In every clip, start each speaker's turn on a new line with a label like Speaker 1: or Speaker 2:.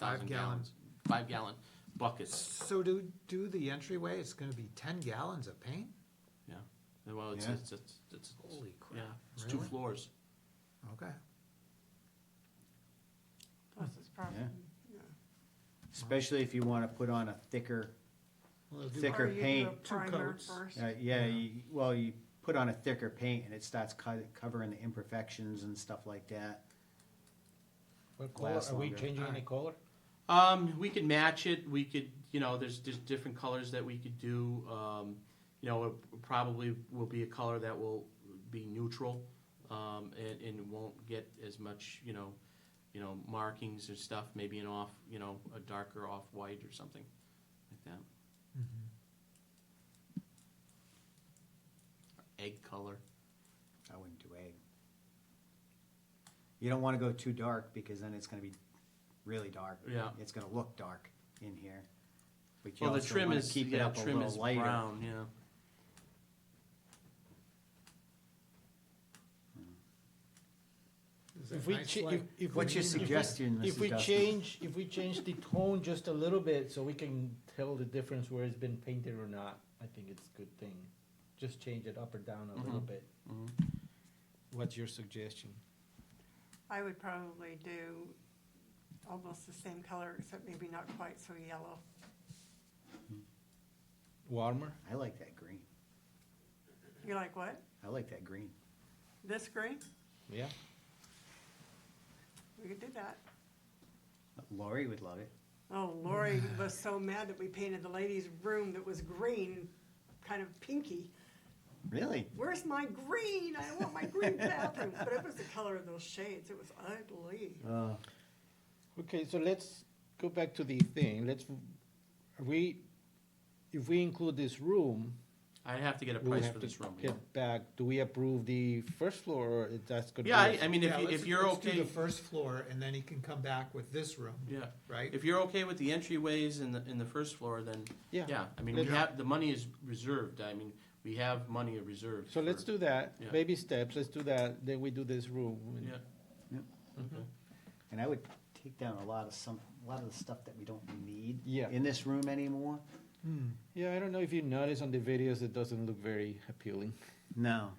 Speaker 1: thousand
Speaker 2: gallon.
Speaker 1: gallons, five gallon buckets,
Speaker 2: So do, do the entryway, it's gonna be ten gallons of paint?
Speaker 1: yeah. Well, it's,
Speaker 3: Yeah.
Speaker 1: it's, it's, it's,
Speaker 2: Holy crap.
Speaker 1: yeah, it's two
Speaker 2: Really?
Speaker 1: floors.
Speaker 2: Okay.
Speaker 4: Plus it's probably, yeah.
Speaker 3: Especially if you wanna put on a thicker,
Speaker 2: Well, it'll do-
Speaker 3: Thicker
Speaker 4: Or you do a
Speaker 3: paint.
Speaker 2: Two
Speaker 4: primer
Speaker 2: coats.
Speaker 4: first.
Speaker 3: uh, yeah, you, well, you put on a thicker paint and it starts co- covering the imperfections and stuff like that.
Speaker 5: What color,
Speaker 3: Last
Speaker 5: are we
Speaker 3: longer.
Speaker 5: changing any color?
Speaker 1: Um, we could match it. We could, you know, there's there's different colors that we could do. Um, you know, it probably will be a color that will be neutral, um, and, and won't get as much, you know, you know, markings and stuff. Maybe an off, you know, a darker off white or something like that.
Speaker 2: Mm-hmm.
Speaker 1: Egg color.
Speaker 3: I wouldn't do egg. You don't wanna go too dark because then it's gonna be really dark.
Speaker 1: Yeah.
Speaker 3: It's gonna look dark in here. But you
Speaker 1: Well, the
Speaker 3: also
Speaker 1: trim
Speaker 3: wanna
Speaker 1: is
Speaker 3: keep it
Speaker 1: yeah,
Speaker 3: up a
Speaker 1: trim
Speaker 3: little
Speaker 1: is
Speaker 3: lighter.
Speaker 1: brown. Yeah.
Speaker 2: Is
Speaker 5: If
Speaker 2: that
Speaker 5: we,
Speaker 2: nice
Speaker 5: cha-
Speaker 2: light?
Speaker 5: if, if.
Speaker 3: What's
Speaker 5: we-
Speaker 3: your
Speaker 5: if we-
Speaker 3: suggestion,
Speaker 5: If
Speaker 3: Mrs.
Speaker 5: we
Speaker 3: Dustin?
Speaker 5: change, if we change the tone just a little bit, so we can tell the difference where it's been painted or not, I think it's a good thing. Just change it up or down a little bit. Mm-hmm. What's your suggestion?
Speaker 4: I would probably do almost the same color, except maybe not quite so yellow.
Speaker 5: Warmer?
Speaker 3: I like that green.
Speaker 4: You like what?
Speaker 3: I like that green.
Speaker 4: This green?
Speaker 5: Yeah?
Speaker 4: We could do that.
Speaker 3: Lori would love it.
Speaker 4: Oh, Lori was so mad that we painted the ladies' room that was green, kind of pinky.
Speaker 3: Really?
Speaker 4: Where's my green? I want my green bathroom. But it was the color of those shades. It was ugly.
Speaker 3: Uh,
Speaker 5: Okay, so let's go back to the thing, let's, are we, if we include this room,
Speaker 1: I'd have to get a
Speaker 5: we'll
Speaker 1: price for
Speaker 5: have to
Speaker 1: this room. yeah.
Speaker 5: get back, do we approve the first floor, or is that's gonna be?
Speaker 1: Yeah, I, I mean, if,
Speaker 2: Yeah,
Speaker 1: you,
Speaker 2: let's-
Speaker 1: if you're
Speaker 2: let's do
Speaker 1: okay,
Speaker 2: the first floor, and then he can come back with this room,
Speaker 1: yeah.
Speaker 2: right?
Speaker 1: If you're okay with the entryways and the, and the first floor, then, yeah, I mean, we
Speaker 5: Let's-
Speaker 1: have, the money is reserved, I mean, we have money reserved.
Speaker 5: So let's
Speaker 1: for-
Speaker 5: do that,
Speaker 1: Yeah.
Speaker 5: baby steps, let's do that, then we do this room. and-
Speaker 1: Yeah,
Speaker 3: And I would take down a lot of some, a lot of the stuff that we don't need
Speaker 5: Yeah.
Speaker 3: in this room anymore.
Speaker 2: Hmm.
Speaker 5: Yeah, I don't know if you notice on the videos, it doesn't look very appealing.
Speaker 3: No.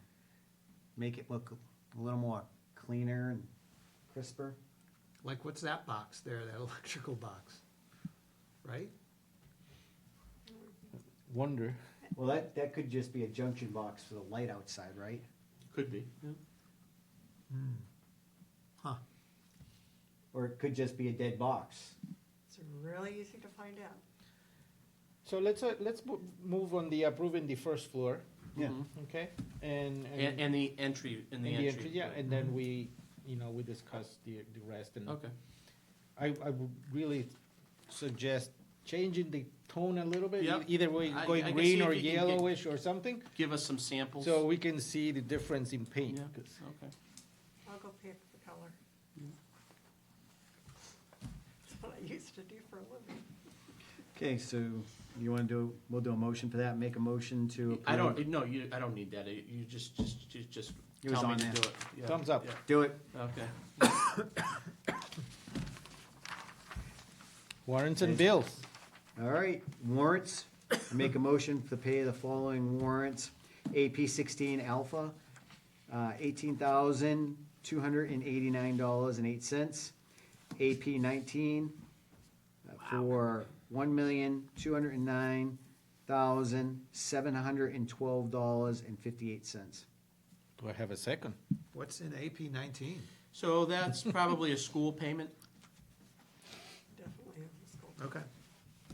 Speaker 3: Make it look a little more cleaner and crisper.
Speaker 2: Like, what's that box there, that electrical box? Right?
Speaker 5: Wonder,
Speaker 3: Well, that, that could just be a junction box for the light outside, right?
Speaker 1: could be, yeah.
Speaker 2: Huh,
Speaker 3: Or it could just be a dead box.
Speaker 4: It's really easy to find out.
Speaker 5: so let's, uh, let's mo- move on the approving the first floor,
Speaker 3: Yeah.
Speaker 1: Mhm.
Speaker 5: okay, and.
Speaker 1: And, and the entry, and the
Speaker 5: and
Speaker 1: entry. Mm-hmm.
Speaker 5: Yeah, and then we, you know, we discuss the, the rest and.
Speaker 1: Okay,
Speaker 5: I, I would really suggest changing the tone a little bit. e-
Speaker 1: Yep.
Speaker 5: Either way,
Speaker 1: I- I
Speaker 5: going
Speaker 1: can
Speaker 5: green
Speaker 1: see if
Speaker 5: or
Speaker 1: you can get-
Speaker 5: yellowish or something,
Speaker 1: give us some samples.
Speaker 5: so we can see the difference in paint.
Speaker 1: Yeah,
Speaker 5: 'cause-
Speaker 1: okay.
Speaker 4: I'll go pick the color. That's what I used to do for a living.
Speaker 3: Okay, so you wanna do, we'll do a motion for that, make a motion to approve.
Speaker 1: I don't, no, you, I don't need that, It- you just, just, just- just
Speaker 3: It was
Speaker 1: tell me
Speaker 3: on
Speaker 1: to
Speaker 3: there.
Speaker 1: do it. Yeah,
Speaker 5: Thumbs up.
Speaker 1: yeah,
Speaker 3: Do it.
Speaker 1: Okay,
Speaker 5: Warrants and bills.
Speaker 3: All right, warrants. Make a motion to pay the following warrants. AP sixteen alpha, uh, eighteen thousand, two hundred and eighty-nine dollars and eight cents. AP nineteen uh, for one million, two hundred and nine thousand, seven hundred and twelve dollars and fifty-eight cents.
Speaker 5: Do I have a second?
Speaker 2: what's in AP nineteen?
Speaker 1: so that's probably a school payment,
Speaker 4: Definitely have this gold.
Speaker 2: Okay.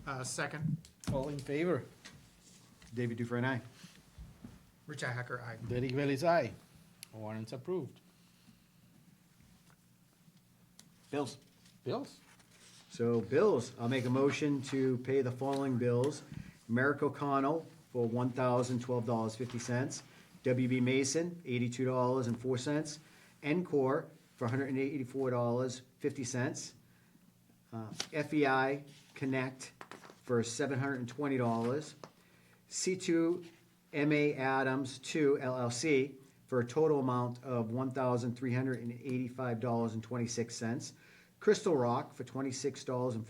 Speaker 2: Uh, second,
Speaker 5: All in favor?
Speaker 3: David Dufresne, aye.
Speaker 2: Richi Hacker, aye.
Speaker 5: Derek Bailey's aye. Warrants approved.
Speaker 3: Bills.
Speaker 5: Bills?
Speaker 3: So bills, I'll make a motion to pay the following bills. Merrick O'Connell for one thousand twelve dollars fifty cents. WB Mason, eighty-two dollars and four cents. Encore for hundred and eighty-four dollars fifty cents. Uh, FEI Connect for seven hundred and twenty dollars. C2 MA Adams 2 LLC for a total amount of $1,385.26. Crystal Rock for $26.40.